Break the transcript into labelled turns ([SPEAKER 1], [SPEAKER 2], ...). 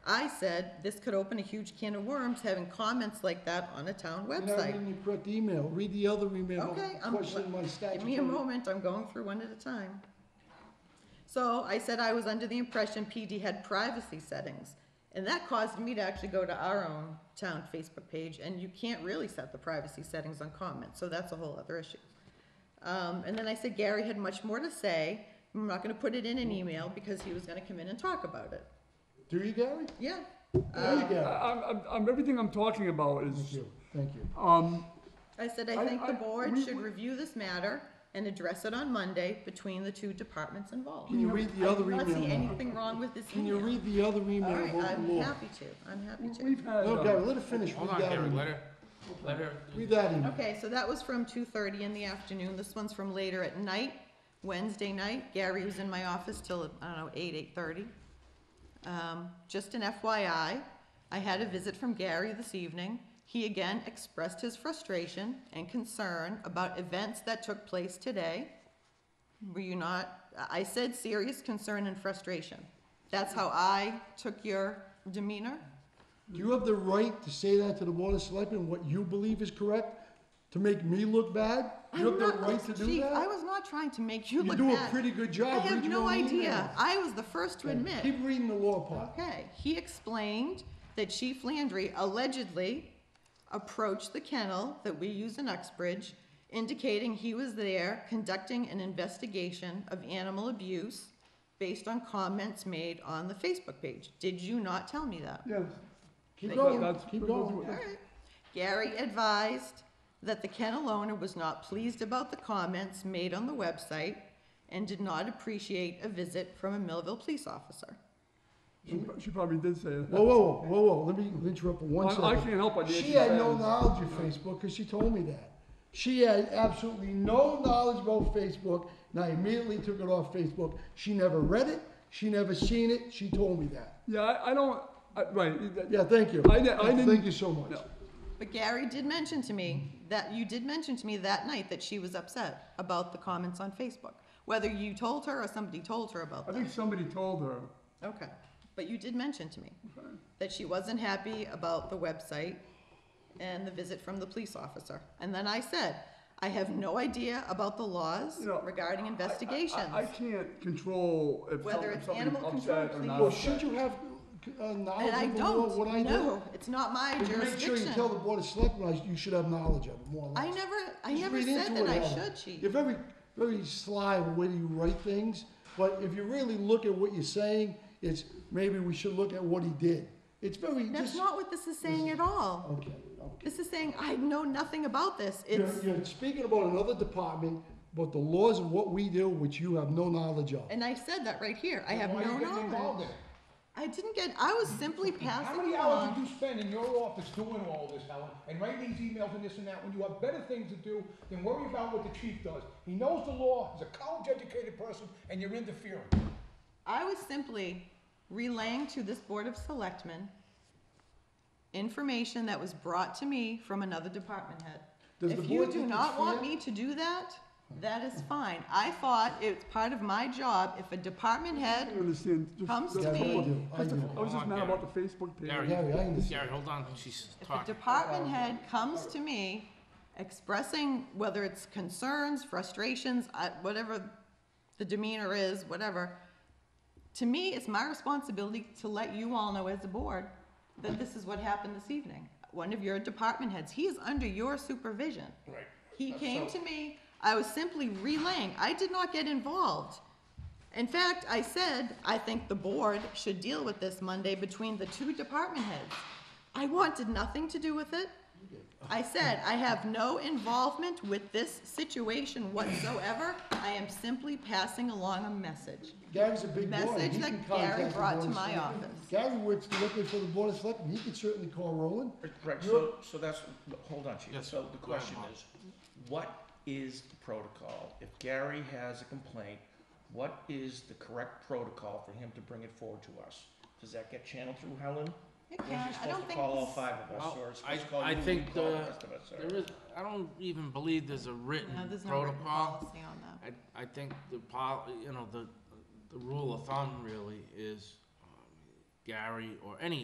[SPEAKER 1] I said, this could open a huge can of worms, having comments like that on a town
[SPEAKER 2] And I read
[SPEAKER 1] website.
[SPEAKER 2] the correct email, read the other email,
[SPEAKER 1] Okay, I'm,
[SPEAKER 2] question my
[SPEAKER 1] give me a
[SPEAKER 2] statute.
[SPEAKER 1] moment, I'm going through one at a time. So I said I was under the impression PD had privacy settings, and that caused me to actually go to our own town Facebook page, and you can't really set the privacy settings on comments, so that's a whole other issue. Um, and then I said Gary had much more to say, I'm not gonna put it in an email because he was gonna come in and talk about it,
[SPEAKER 2] Do you, Gary?
[SPEAKER 1] yeah. Uh,
[SPEAKER 2] There you
[SPEAKER 3] I-
[SPEAKER 2] go.
[SPEAKER 3] I'm, I'm- I'm, everything I'm talking about
[SPEAKER 2] Thank
[SPEAKER 3] is,
[SPEAKER 2] you, thank you.
[SPEAKER 3] um,
[SPEAKER 1] I said, I
[SPEAKER 3] I-
[SPEAKER 1] think the
[SPEAKER 3] I-
[SPEAKER 1] board
[SPEAKER 3] we-
[SPEAKER 1] should
[SPEAKER 3] we-
[SPEAKER 1] review this matter and address it on Monday between the two departments involved.
[SPEAKER 2] Can you read the other
[SPEAKER 1] I do not see
[SPEAKER 2] email?
[SPEAKER 1] anything wrong with this
[SPEAKER 2] Can you
[SPEAKER 1] email.
[SPEAKER 2] read the other
[SPEAKER 1] All
[SPEAKER 2] email
[SPEAKER 1] right,
[SPEAKER 2] about the
[SPEAKER 1] I'm
[SPEAKER 2] law?
[SPEAKER 1] happy to, I'm happy to.
[SPEAKER 3] we've had,
[SPEAKER 2] No,
[SPEAKER 3] uh,
[SPEAKER 2] Gary, let her finish, read
[SPEAKER 4] Hold on,
[SPEAKER 2] that
[SPEAKER 4] Gary, let
[SPEAKER 2] email.
[SPEAKER 4] her, let her,
[SPEAKER 2] Read that email.
[SPEAKER 1] Okay, so that was from two thirty in the afternoon, this one's from later at night, Wednesday night, Gary was in my office till, I don't know, eight, eight-thirty. Um, just an FYI, I had a visit from Gary this evening, he again expressed his frustration and concern about events that took place today. Were you not, I I said serious concern and frustration, that's how I took your demeanor?
[SPEAKER 2] Do you have the right to say that to the board of selectmen, what you believe is correct, to make me look bad? You
[SPEAKER 1] I'm
[SPEAKER 2] have the
[SPEAKER 1] not-
[SPEAKER 2] right to do
[SPEAKER 1] Chief, I
[SPEAKER 2] that?
[SPEAKER 1] was not trying to make you
[SPEAKER 2] You
[SPEAKER 1] look
[SPEAKER 2] do a
[SPEAKER 1] bad.
[SPEAKER 2] pretty good job.
[SPEAKER 1] I have
[SPEAKER 2] Read your
[SPEAKER 1] no
[SPEAKER 2] own
[SPEAKER 1] idea.
[SPEAKER 2] emails.
[SPEAKER 1] I was the first to admit.
[SPEAKER 2] Keep reading the law part.
[SPEAKER 1] Okay, he explained that Chief Landry allegedly approached the kennel that we use in Uxbridge, indicating he was there conducting an investigation of animal abuse based on comments made on the Facebook page. Did you not tell me that?
[SPEAKER 3] yes,
[SPEAKER 2] Keep
[SPEAKER 1] Thank
[SPEAKER 2] going,
[SPEAKER 3] that's,
[SPEAKER 2] keep going.
[SPEAKER 1] All right. Gary advised that the kennel owner was not pleased about the comments made on the website and did not appreciate a visit from a Millville police officer.
[SPEAKER 3] she, she probably did say that.
[SPEAKER 2] Whoa, whoa, whoa, whoa, let me interrupt for one
[SPEAKER 3] I-
[SPEAKER 2] second.
[SPEAKER 3] I can't help but
[SPEAKER 2] She
[SPEAKER 3] answer
[SPEAKER 2] had no
[SPEAKER 3] that.
[SPEAKER 2] knowledge of Facebook, because she told me that. She had absolutely no knowledge about Facebook, and I immediately took it off Facebook. She never read it, she never seen it, she told me that.
[SPEAKER 3] Yeah, I, I don't, I, right, that-
[SPEAKER 2] Yeah, thank you.
[SPEAKER 3] I di- I didn't-
[SPEAKER 2] Thank you so much.
[SPEAKER 3] No.
[SPEAKER 1] But Gary did mention to me that, you did mention to me that night that she was upset about the comments on Facebook, whether you told her or somebody told her about
[SPEAKER 3] I
[SPEAKER 1] that.
[SPEAKER 3] think somebody told her,
[SPEAKER 1] Okay, but you did mention to me that she wasn't happy about the website and the visit from the police officer. And then I said, I have no idea about the laws
[SPEAKER 3] you know.
[SPEAKER 1] regarding
[SPEAKER 3] I- I- I-
[SPEAKER 1] investigations.
[SPEAKER 3] I can't control if some-
[SPEAKER 1] Whether
[SPEAKER 3] if
[SPEAKER 1] it's
[SPEAKER 3] somebody's
[SPEAKER 1] animal control,
[SPEAKER 3] upset or
[SPEAKER 1] please.
[SPEAKER 3] not
[SPEAKER 2] Well, should
[SPEAKER 3] upset.
[SPEAKER 2] you have uh, knowledge
[SPEAKER 1] And I
[SPEAKER 2] of the law, what I
[SPEAKER 1] don't,
[SPEAKER 2] do?
[SPEAKER 1] no, it's not my
[SPEAKER 2] But you make sure you tell the
[SPEAKER 1] jurisdiction.
[SPEAKER 2] board of selectmen, I- you should have knowledge of it, more or less.
[SPEAKER 1] I never, I
[SPEAKER 2] Just
[SPEAKER 1] never
[SPEAKER 2] read
[SPEAKER 1] said
[SPEAKER 2] into
[SPEAKER 1] that
[SPEAKER 2] it,
[SPEAKER 1] I
[SPEAKER 2] Alan.
[SPEAKER 1] should, chief.
[SPEAKER 2] You're very, very sly in the way you write things, but if you really look at what you're saying, it's maybe we should look at what he did. It's very
[SPEAKER 1] That's
[SPEAKER 2] just,
[SPEAKER 1] not what this is saying at all.
[SPEAKER 2] okay, okay.
[SPEAKER 1] This is saying, I know nothing about this.
[SPEAKER 2] You're,
[SPEAKER 1] It's,
[SPEAKER 2] you're speaking about another department, but the laws of what we do, which you have no knowledge of.
[SPEAKER 1] and I said that right here, I have
[SPEAKER 5] Why
[SPEAKER 1] no
[SPEAKER 5] you getting involved
[SPEAKER 1] knowledge.
[SPEAKER 5] in it?
[SPEAKER 1] I didn't get, I was simply
[SPEAKER 5] How
[SPEAKER 1] passing
[SPEAKER 5] many hours
[SPEAKER 1] along.
[SPEAKER 5] did you spend in your office doing all this, Helen, and writing these emails and this and that, when you have better things to do than worry about what the chief does? He knows the law, he's a college-educated person, and you're interfering.
[SPEAKER 1] I was simply relaying to this Board of Selectmen information that was brought to me from another department head.
[SPEAKER 2] Does the
[SPEAKER 1] If you
[SPEAKER 2] board
[SPEAKER 1] do
[SPEAKER 2] think
[SPEAKER 1] not
[SPEAKER 2] it's
[SPEAKER 1] want
[SPEAKER 2] fair?
[SPEAKER 1] me to do that, that is fine. I thought it's part of my job, if a department
[SPEAKER 3] I
[SPEAKER 1] head
[SPEAKER 3] don't understand. just-
[SPEAKER 1] comes
[SPEAKER 2] Yeah,
[SPEAKER 1] to
[SPEAKER 2] I
[SPEAKER 1] me,
[SPEAKER 2] do, I
[SPEAKER 3] just-
[SPEAKER 2] do.
[SPEAKER 3] I was just
[SPEAKER 4] Hold on,
[SPEAKER 3] mad
[SPEAKER 4] Gary.
[SPEAKER 3] about the Facebook page.
[SPEAKER 4] Gary,
[SPEAKER 2] Gary, I understand.
[SPEAKER 4] Gary, hold on, she's
[SPEAKER 1] if a
[SPEAKER 4] talking.
[SPEAKER 1] department head comes to me expressing whether it's concerns, frustrations, uh, whatever the demeanor is, whatever, to me, it's my responsibility to let you all know as a board that this is what happened this evening. One of your department heads, he is under your supervision. Right. He came to me, I was simply relaying, I did not get involved. In fact, I said, I think the board should deal with this Monday between the two department heads. I wanted nothing to do with it. I said, I have no involvement with this situation whatsoever. I am simply passing along a message.
[SPEAKER 2] Gary's a big boy.
[SPEAKER 1] Message
[SPEAKER 2] He
[SPEAKER 1] that
[SPEAKER 2] can
[SPEAKER 1] Gary
[SPEAKER 2] contact the
[SPEAKER 1] brought
[SPEAKER 2] Board
[SPEAKER 1] to
[SPEAKER 2] of
[SPEAKER 1] my
[SPEAKER 2] Selectmen.
[SPEAKER 1] office.
[SPEAKER 2] Gary works directly for the board of selectmen, he could certainly call Roland.
[SPEAKER 6] Right, so, so that's, hold on, chief.
[SPEAKER 4] Yes,
[SPEAKER 6] So the
[SPEAKER 4] go ahead,
[SPEAKER 6] question
[SPEAKER 4] Mark.
[SPEAKER 6] is, what is the protocol? If Gary has a complaint, what is the correct protocol for him to bring it forward to us? Does that get channeled through Helen?
[SPEAKER 1] It
[SPEAKER 6] Or is he
[SPEAKER 1] can, I
[SPEAKER 6] supposed
[SPEAKER 1] don't
[SPEAKER 6] to
[SPEAKER 1] think.
[SPEAKER 6] Call all
[SPEAKER 1] this-
[SPEAKER 6] five of us,
[SPEAKER 4] Well,
[SPEAKER 6] or is he
[SPEAKER 4] I-
[SPEAKER 6] supposed to call you
[SPEAKER 4] I
[SPEAKER 6] and
[SPEAKER 4] think,
[SPEAKER 6] call the
[SPEAKER 4] uh,
[SPEAKER 6] rest of us? or-
[SPEAKER 4] There is, I don't even believe there's a
[SPEAKER 1] No,
[SPEAKER 4] written
[SPEAKER 1] there's no written
[SPEAKER 4] protocol.
[SPEAKER 1] policy on that.
[SPEAKER 4] I, I think the pol, you know, the, the rule of thumb really is um, Gary or any